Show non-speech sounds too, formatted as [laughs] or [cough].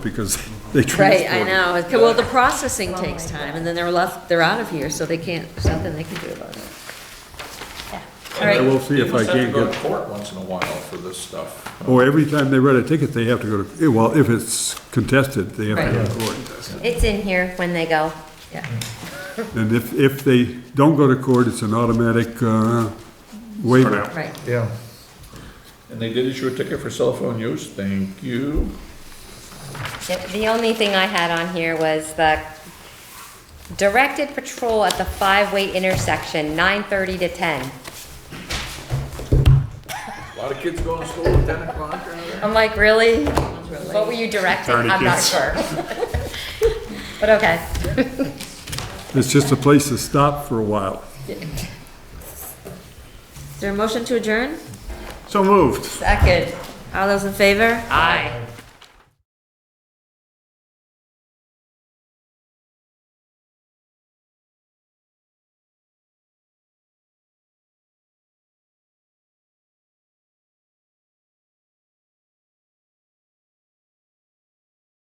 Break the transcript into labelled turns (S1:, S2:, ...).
S1: because [laughs] they
S2: Right,
S1: transport
S2: I
S1: it.
S2: know. Okay, Well, the processing takes time, and then they're left, they're out of here, so they can't, there's nothing they can do about it. All
S1: I
S2: right,
S1: will see if I
S3: They
S1: can't
S3: must have to go to
S1: get,
S3: court once in a while for this stuff.
S1: or every time they write a ticket, they have to go to, eh, well, if it's contested, they have to go to court.
S4: It's in here when they go.
S2: yeah.
S1: And if, if they don't go to court, it's an automatic uh, waiver.
S2: Right.
S5: Yeah.
S3: And they did issue a ticket for cell phone use, thank you.
S4: The- The only thing I had on here was the directed patrol at the five-way intersection, nine thirty to ten.
S3: A lot of kids going to school at ten o'clock or whatever.
S4: I'm like, really? What were you directing? I'm not sure. [laughs] But okay.
S1: It's just a place to stop for a while.
S2: Is there a motion to adjourn?
S5: So moved.
S4: Second.
S2: All those in favor?
S4: Aye.